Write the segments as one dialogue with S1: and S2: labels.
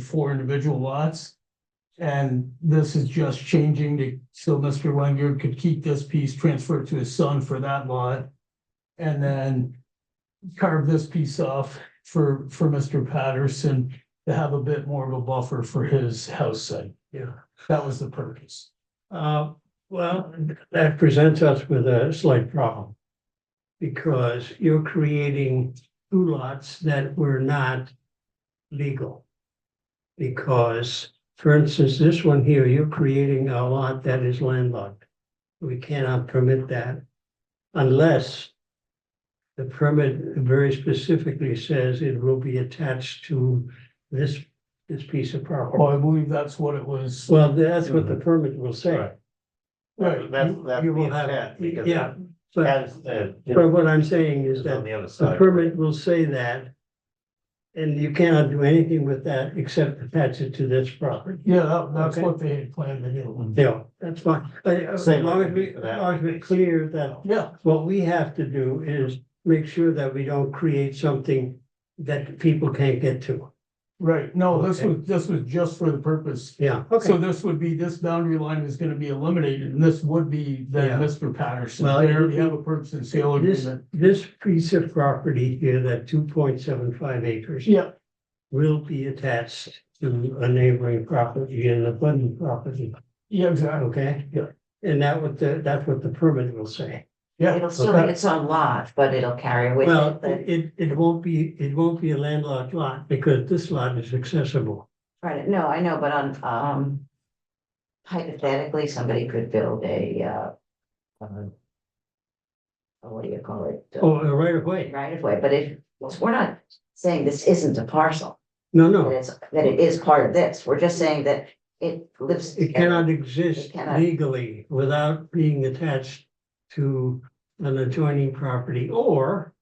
S1: four individual lots. And this is just changing to, so Mr. Wenger could keep this piece, transfer it to his son for that lot. And then carve this piece off for, for Mr. Patterson to have a bit more of a buffer for his house site.
S2: Yeah.
S1: That was the purpose.
S2: Uh, well, that presents us with a slight problem. Because you're creating two lots that were not legal. Because, for instance, this one here, you're creating a lot that is landlocked. We cannot permit that unless the permit very specifically says it will be attached to this, this piece of property.
S1: Well, I believe that's what it was.
S2: Well, that's what the permit will say.
S3: Right. That's,
S2: You-
S3: that's
S2: you
S3: the
S2: will have-
S3: intent, because.
S2: Yeah, but,
S3: That's the.
S2: but what I'm saying is
S3: Is on
S2: that
S3: the other
S2: the
S3: side.
S2: permit will say that. And you cannot do anything with that except attach it to this property.
S1: Yeah, that- that's
S2: Okay.
S1: what they had planned to do.
S2: Yeah, that's fine. Uh, As
S3: Same
S2: long as
S3: would
S2: we,
S3: be for
S2: as
S3: that.
S2: long as we're clear that
S1: Yeah,
S2: what we have to do is make sure that we don't create something that people can't get to.
S1: right. No, this
S2: Okay.
S1: was, this was just for the purpose
S2: Yeah,
S1: So
S2: okay.
S1: this would be, this boundary line is gonna be eliminated, and this would be then
S2: Yeah.
S1: Mr. Patterson,
S2: Well,
S1: there
S2: it-
S1: we have a purchase and sale
S2: This,
S1: agreement.
S2: this piece of property here, that two point seven five acres.
S1: Yeah,
S2: will be attached to a neighboring property and a budding property,
S1: yeah, exactly,
S2: okay?
S1: Yeah.
S2: And that what the, that's what the permit will say.
S1: yeah,
S4: It'll still be its own lot, but it'll carry with
S2: Well,
S4: it the
S2: it, it won't be, it won't be a landlocked lot because this lot is accessible.
S4: credit. No, I know, but on, um. Hypothetically, somebody could build a, uh. um, uh, What do you call it?
S2: Oh, uh, right away.
S4: Right of way, but it, we're not saying this isn't a parcel,
S2: No,
S4: that
S2: no,
S4: it's, that it is part of this. We're just saying that it lives.
S2: it cannot exist
S4: It cannot.
S2: legally without being attached to an adjoining property or,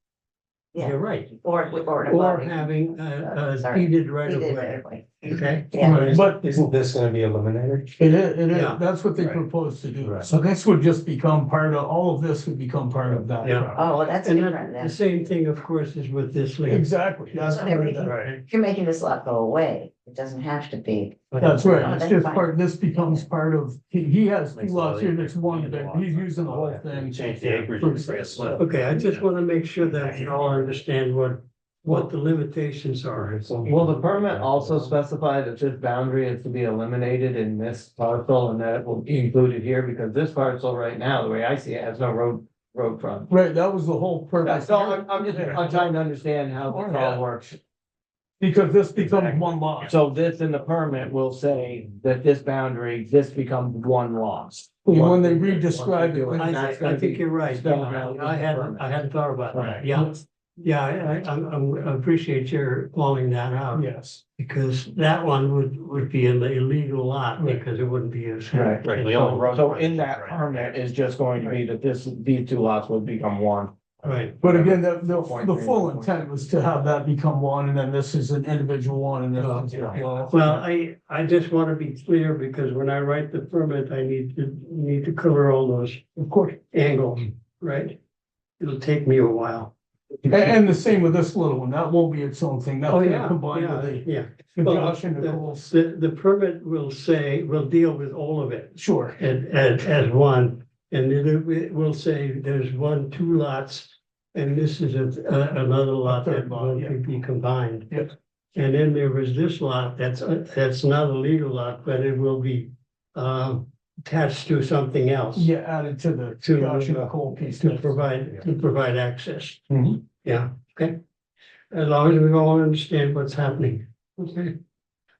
S4: Yeah.
S2: you're right,
S4: Or, or. an
S2: or
S4: abutting-
S2: having a, a
S4: Sorry.
S2: deeded right of
S4: Either
S2: way,
S4: way.
S2: okay?
S4: Yeah,
S1: but it is,
S3: Isn't this gonna be eliminated?
S1: it is,
S2: Yeah.
S1: that's what they
S3: Right.
S1: proposed to do,
S3: Right.
S1: so this would just become part of, all of this would become part of that.
S2: Yeah.
S1: property.
S4: oh, well, that's
S2: And
S4: different
S2: that- the
S4: then.
S2: same thing, of course, is with this lease.
S1: Exactly, that's
S4: So
S1: part of
S4: everything-
S1: that,
S3: Right.
S4: If You're making this lot go away. It doesn't have to be.
S1: that's right, it's
S4: That's
S1: just
S4: fine.
S1: part, this becomes part of, he, he has two
S3: Makes it a lot
S1: lots here, and it's
S3: easier.
S1: one,
S3: Yeah, the
S1: big-
S3: lots.
S1: he's using
S5: Oh,
S1: the whole thing.
S3: Change the acreage.
S1: For-
S3: It's very slow.
S2: Okay, I just want to make sure that you all understand what, what the limitations are.
S5: Will the permit also specify that this boundary is to be eliminated in this parcel and that it will be included here? Because this parcel right now, the way I see it, has no road, road front.
S1: Right, that was the whole purpose,
S5: So I'm, I'm just, I'm trying to understand how this all works.
S1: because this becomes
S3: Exactly.
S1: one lot,
S5: So this in the permit will say that this boundary, this becomes one lot.
S1: And when they re-describe it,
S2: I,
S5: That's gonna
S2: I think
S5: be
S2: you're right.
S5: spelled out.
S2: I hadn't, I hadn't thought about that.
S5: Right.
S2: Yeah, yeah, I, I, I'm- I'm- I appreciate your calling that out
S1: yes.
S2: because that one would, would be an illegal lot because it wouldn't be a.
S5: Right,
S3: right, we all-
S5: So, so in that permit is just going to be that this, these two lots will become one.
S2: Right,
S1: But again, the, the,
S5: Point
S1: the
S5: three,
S1: full
S5: point
S1: intent was to have that become one, and then this is an individual one, and
S2: Oh,
S1: then.
S5: yeah.
S2: well, I, I just want to be clear because when I write the permit, I need to, need to cover all those
S1: Of course.
S2: angles, right? It'll take me a while.
S1: And, and the same with this little one, that won't be its own thing, that's
S2: Oh,
S1: gonna
S2: yeah,
S1: combine
S2: yeah,
S1: with
S2: yeah.
S1: the, the
S2: Well,
S1: Josh and
S2: the-
S1: Nicole's.
S2: The, the permit will say, will deal with all of it
S1: Sure,
S2: as, as, as one. And then it wi- will say there's one, two lots, and this is a, a- another lot that
S1: Third lot,
S2: will
S1: yeah.
S2: be combined.
S1: Yep.
S2: And then there was this lot, that's, a- that's not a legal lot, but it will be, um, attached to something else.
S1: yeah, added to the
S2: To,
S1: Josh and
S2: uh,
S1: Nicole piece.
S2: To provide, to provide access.
S1: Mhm.
S2: Yeah, okay. As long as we all understand what's happening. Okay.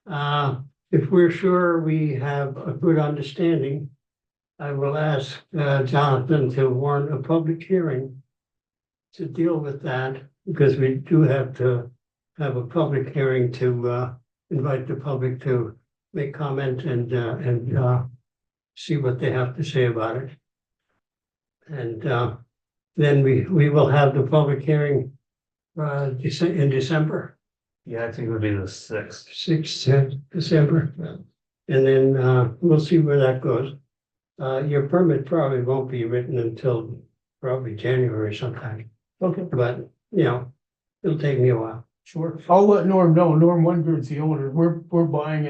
S2: Uh, if we're sure we have a good understanding, I will ask uh, Jonathan to warn a public hearing to deal with that, because we do have to have a public hearing to uh, invite the public to make comment and, uh, and uh, see what they have to say about it. And uh, then we, we will have the public hearing uh, Dece- in December,
S3: Yeah, I think it would be the sixth.
S2: sixth December. And then uh, we'll see where that goes. Uh, Your permit probably won't be written until probably January sometime,
S1: Okay,
S2: but, you know, it'll take me a while.
S1: Sure. I'll let Norm know. Norm Wondred's the owner. We're, we're buying it.